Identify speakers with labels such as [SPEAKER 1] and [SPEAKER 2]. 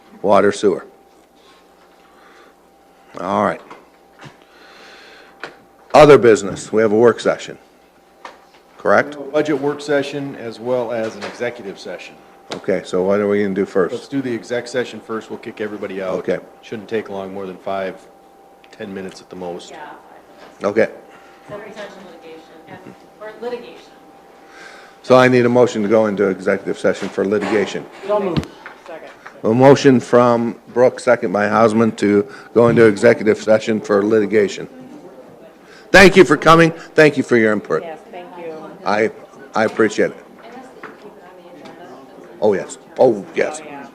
[SPEAKER 1] Water, sewer. All right. Other business, we have a work session, correct?
[SPEAKER 2] Budget work session as well as an executive session.
[SPEAKER 1] Okay, so what are we gonna do
[SPEAKER 2] Let's
[SPEAKER 1] first?
[SPEAKER 2] do the exec session first, we'll kick everybody out.
[SPEAKER 1] Okay.
[SPEAKER 2] Shouldn't take long, more than five, 10 minutes at the most.
[SPEAKER 3] Yeah,
[SPEAKER 1] Okay,
[SPEAKER 3] the potential litigation, or litigation.
[SPEAKER 1] so I need a motion to go into executive session for litigation.
[SPEAKER 3] Second.
[SPEAKER 1] A motion from Brooks, second by Hausman, to go into executive session for litigation. Thank you for coming, thank you for your input.
[SPEAKER 3] Yes, thank you.
[SPEAKER 1] I, I appreciate it.
[SPEAKER 3] And that's the, keep it on the agenda.
[SPEAKER 1] Oh, yes, oh, yes.